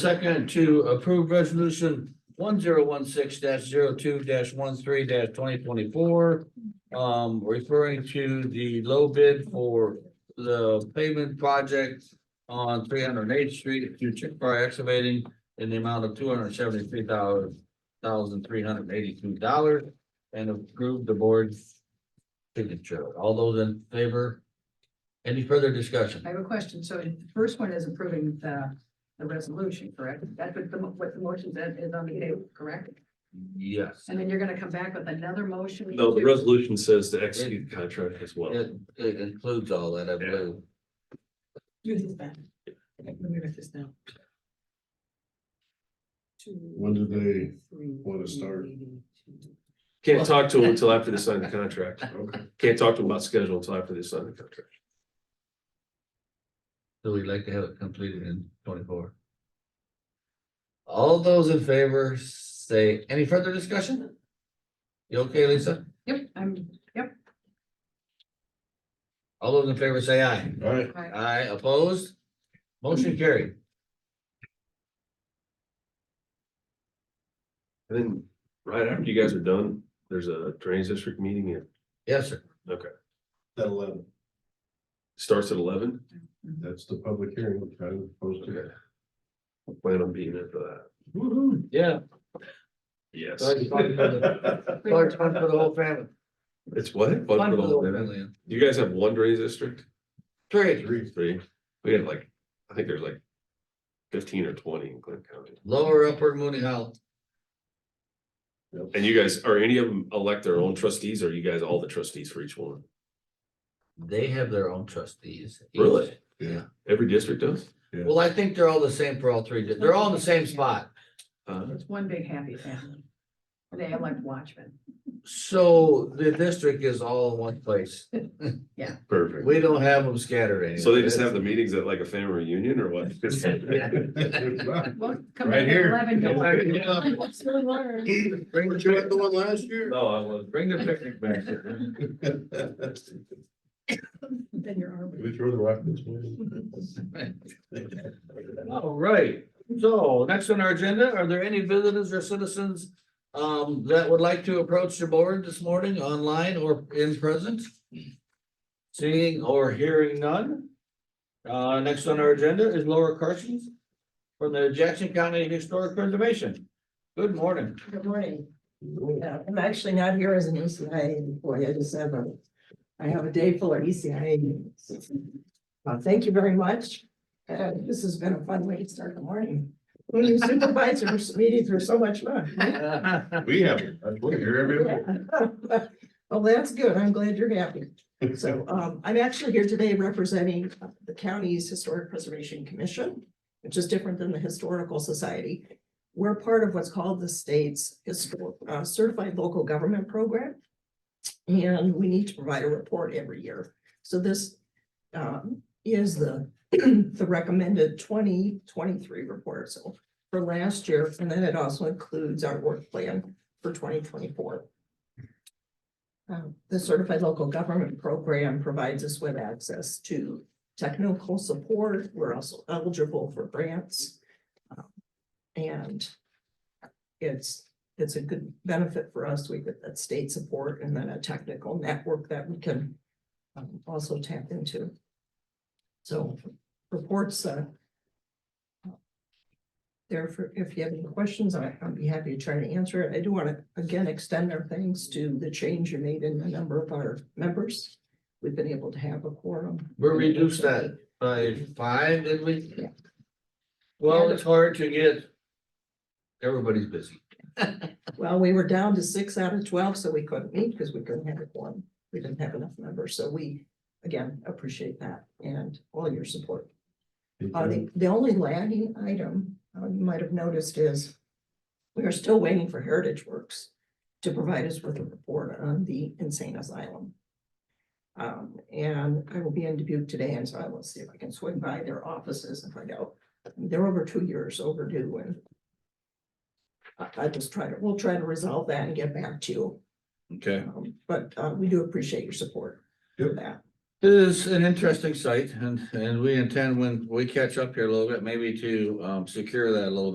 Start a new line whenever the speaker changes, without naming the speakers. Second to approve resolution one zero one six 2 13 twenty twenty-four. Um, referring to the low bid for the pavement project on three hundred and eighth street through Chick-fil-A excavating in the amount of two hundred and seventy-three dollars, thousand three hundred and eighty-two dollars and approve the board's signature. All those in favor? Any further discussion?
I have a question. So the first one is approving the, the resolution, correct? That's what the, mo- what the motion that is on the table, correct?
Yes.
And then you're gonna come back with another motion?
No, the
to-
resolution says to execute the contract as well.
It, it includes all that, I believe.
Do this back. Let me write this down.
When do they wanna start?
Can't talk to them until after they sign the contract.
Okay.
Can't talk to them about schedule until after they sign the contract.
So we'd like to have it completed in twenty-four. All those in favor, say, any further discussion? You okay, Lisa?
Yep, I'm,
All those in favor, say aye.
All right,
I,
Aye, opposed? Motion carried.
And then right after you guys are done, there's a drainage district meeting. It
Yes, sir.
that eleven,
starts at eleven.
that's the public hearing, we're trying to post it.
I Plan on being there for
Yeah.
that. Yes.
Fun for the whole family.
It's what? Fun for the whole family. You guys have one drainage district?
Three,
Three,
Three? We have like, I think there's like fifteen or twenty in Clinton County.
lower upper Mooney Hollow.
And you guys, are any of them elect their own trustees or are you guys all the trustees for each one?
They have their own trustees. each.
Really?
Yeah.
Every district does?
Well, I think they're all the same for all three. They're all in the same spot.
Uh,
it's one big happy family. They elect watchmen.
So the district is all in one place.
perfect.
We don't have them scattered anywhere.
So they just have the meetings at like a family reunion or what?
Well, come
Right
back at
here.
eleven. don't worry.
Bring the
you had the one last year?
No, I was.
Bring the picnic back.
Then you're armed.
We throw the rock this way.
All right, so next on our agenda, are there any visitors or citizens um that would like to approach the board this morning online or in present? Seeing or hearing none. Uh, next on our agenda is Laura Carson from the Jackson County Historic Preservation. Good morning.
Good morning. Uh, I'm actually not here as an ECIA employee. I just have a, I have a day full of ECIA meetings. Uh, thank you very much. Uh, this has been a fun way to start the morning. When you supervisors meetings were so much fun.
We have, it. we're here every week.
Well, that's good. I'm glad you're happy. So um, I'm actually here today representing uh, the county's Historic Preservation Commission, which is different than the Historical Society. We're part of what's called the state's Histor- uh, Certified Local Government Program. And we need to provide a report every year. So this um, is the, the recommended twenty twenty-three report. So for last year, and then it also includes our work plan for twenty twenty-four. Um, the Certified Local Government Program provides us with access to technical support. We're also eligible for grants. Um, And it's, it's a good benefit for us. We get that state support and then a technical network that we can um, also tap into. So reports, uh, Therefore, if you have any questions, I- I'd be happy to try to answer it. I do want to again extend our thanks to the change you made in the number of our members. We've been able to have a quorum.
We reduced that by five, did we?
Yeah.
Well, it's hard to get. Everybody's busy.
Well, we were down to six out of twelve, so we couldn't meet because we couldn't have a quorum. We didn't have enough members, so we again appreciate that and all your support. Uh, the, the only lagging item, uh, you might have noticed is we are still waiting for Heritage Works to provide us with a report on the insane asylum. Um, and I will be in Dubuque today, and so I will see if I can swing by their offices and find out. They're over two years overdue and I, I just try to, we'll try to resolve that and get back to you.
Okay.
Um, But, uh, we do appreciate your support for
Yep.
that.
This is an interesting site and, and we intend when we catch up here a little bit, maybe to, um, secure that a little